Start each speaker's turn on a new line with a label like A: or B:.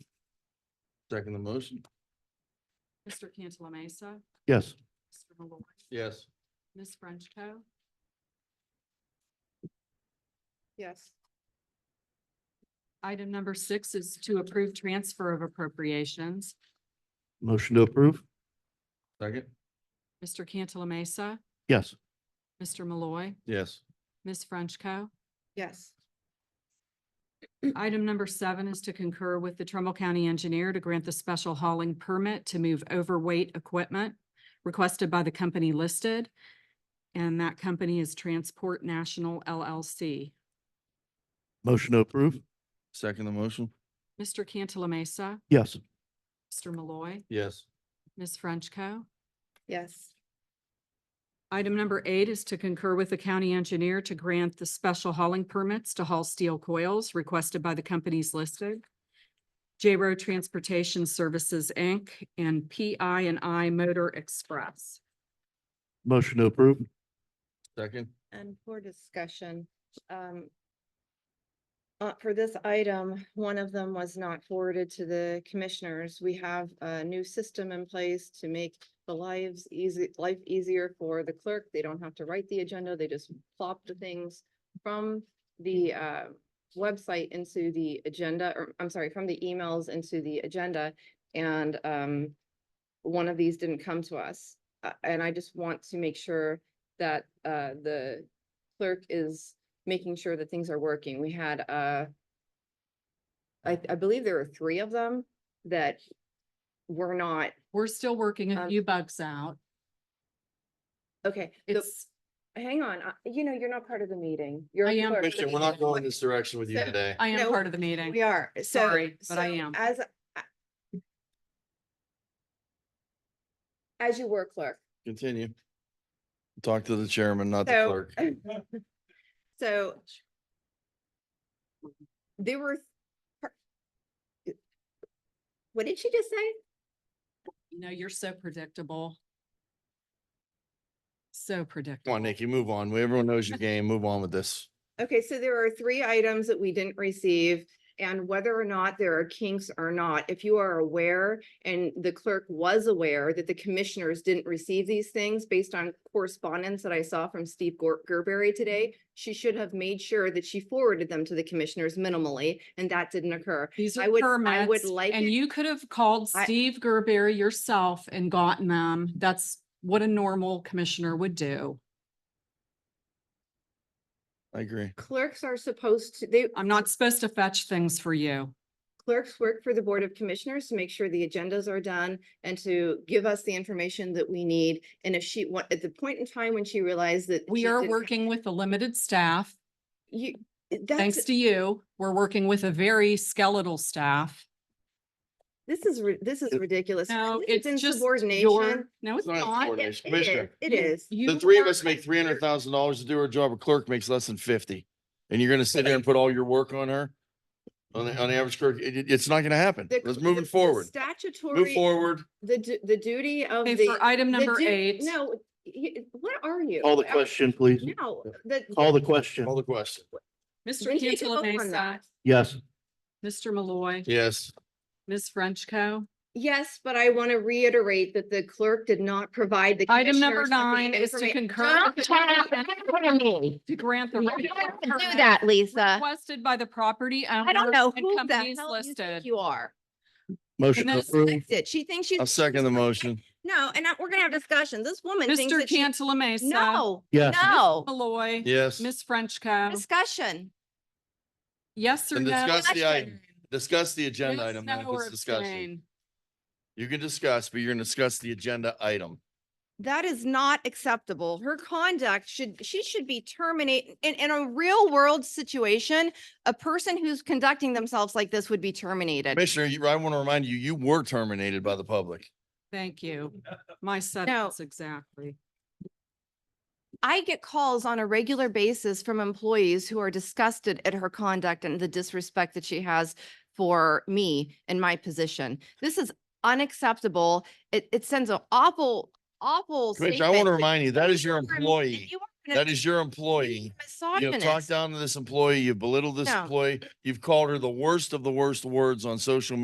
A: Second the motion?
B: Mr. Cantala Mesa,
C: Yes.
B: Mr. Malloy,
A: Yes.
B: Ms. Frenchco.
D: Yes.
B: Item number six is to approve transfer of appropriations.
C: Motion to approve?
A: Second?
B: Mr. Cantala Mesa,
C: Yes.
B: Mr. Malloy,
A: Yes.
B: Ms. Frenchco.
D: Yes.
B: Item number seven is to concur with the Trumbull County Engineer to grant the special hauling permit to move overweight equipment requested by the company listed. And that company is Transport National LLC.
C: Motion to approve?
A: Second the motion?
B: Mr. Cantala Mesa,
C: Yes.
B: Mr. Malloy,
A: Yes.
B: Ms. Frenchco.
D: Yes.
B: Item number eight is to concur with the county engineer to grant the special hauling permits to haul steel coils requested by the companies listed. J Row Transportation Services, Inc. and PI and I Motor Express.
C: Motion to approve?
A: Second?
D: And for discussion, um, uh, for this item, one of them was not forwarded to the commissioners. We have a new system in place to make the lives easy, life easier for the clerk. They don't have to write the agenda. They just plop the things from the, uh, website into the agenda, or I'm sorry, from the emails into the agenda. And, um, one of these didn't come to us. Uh, and I just want to make sure that uh the clerk is making sure that things are working. We had uh I I believe there were three of them that were not,
B: We're still working a
D: Um,
B: few bugs out.
D: okay, the-
B: It's,
D: hang on, uh, you know, you're not part of the meeting. You're
B: I
D: a
B: am
D: clerk.
A: Commissioner, we're not going this direction with you
D: So-
A: today.
B: I am
D: no,
B: part of the meeting.
D: We are, so.
B: Sorry, but I
D: so
B: am.
D: As I- as you were clerk,
A: Continue. Talk to the chairman, not the
D: So-
A: clerk.
D: So there were th- what did she just say?
B: You know, you're so predictable. So predictable.
A: Come on, Nikki, move on. Everyone knows your game. Move on with this.
D: Okay, so there are three items that we didn't receive. And whether or not there are kinks or not, if you are aware and the clerk was aware that the commissioners didn't receive these things based on correspondence that I saw from Steve Gor- Gerberry today, she should have made sure that she forwarded them to the commissioners minimally, and that didn't occur.
B: These
D: I
B: are
D: would- I would
B: permits,
D: like
B: and
D: it-
B: you could have called
D: I-
B: Steve Gerberry yourself and gotten them. That's what a normal commissioner would do.
A: I agree.
D: Clerks are supposed to, they,
B: I'm not supposed to fetch things for you.
D: clerks work for the Board of Commissioners to make sure the agendas are done and to give us the information that we need. And if she, wa- at the point in time when she realized that.
B: We
D: she
B: are
D: didn't-
B: working with a limited staff.
D: You, eh,
B: Thanks
D: that's,
B: to you, we're working with a very skeletal staff.
D: this is, ri- this is ridiculous.
B: No,
D: This is
B: it's just your,
D: insubordination.
B: no, it's
A: not
B: not.
D: It
A: Coordination.
D: is,
A: Commissioner,
D: it
B: You-
D: is.
A: The
B: you
A: three of
B: are-
A: us make three hundred thousand dollars to do our job. A clerk makes less than fifty. And you're gonna sit there and put all your work on her? On the, on the average clerk, It- it- it's not gonna happen.
D: The-
A: Let's
D: the-
A: moving
D: the
A: forward. Move
D: Statutory,
A: forward.
D: the, du- the duty of
B: Okay,
D: the.
B: for item
D: the
B: number
D: du-
B: eight,
D: No, y- what are you?
C: Call the
D: I-
C: question, please.
D: No, the.
C: Call the question.
A: Call the question.
B: Mr.
D: we need to
B: Cantala
D: vote on
B: Mesa,
D: that.
C: Yes.
B: Mr. Malloy,
A: Yes.
B: Ms. Frenchco.
D: Yes, but I want to reiterate that the clerk did not provide the.
B: Item number
D: commissioners with the
B: nine is to
D: informa-
B: concur
E: Don't
B: with
E: turn
B: the
E: up, turn on me.
B: to grant the.
E: You
B: regular
E: don't have to
B: permit
E: Do that, Lisa.
B: Requested by the property owners
E: I don't know
B: and
E: who the
B: companies
E: hell you think
B: listed.
E: you are.
C: Motion to
B: Yes.
C: approve?
D: That's it. She thinks she's.
A: I'll second the motion.
D: No, and I- we're gonna have discussion. This woman thinks
B: Mr.
D: that she.
B: Cantala Mesa.
D: No,
C: Yes.
E: No,
B: Malloy.
A: Yes.
B: Ms. Frenchco.
E: discussion.
B: Yes or
A: And
B: no?
A: discuss the item.
E: Discussion.
A: Discuss the agenda
B: Yes,
A: item, not
B: no, or
A: this discussion.
B: abstain.
A: You can discuss, but you're gonna discuss the agenda item.
D: that is not acceptable. Her conduct should, she should be terminated. In, in a real world situation, a person who's conducting themselves like this would be terminated.
A: Commissioner, you, I want to remind you, you were terminated by the public.
B: Thank you. My sentence, exactly.
D: I get calls on a regular basis from employees who are disgusted at her conduct and the disrespect that she has for me and my position. This is unacceptable. It, it sends an awful, awful
A: Commissioner, I want to
D: statement
A: remind you, that is your
D: you are- that
A: employee.
D: you are
A: That
D: mis-
A: is your employee. You have talked
D: Misogynist.
A: down to this employee, you belittled this
D: No.
A: employee, you've called her the worst of the worst words on social media.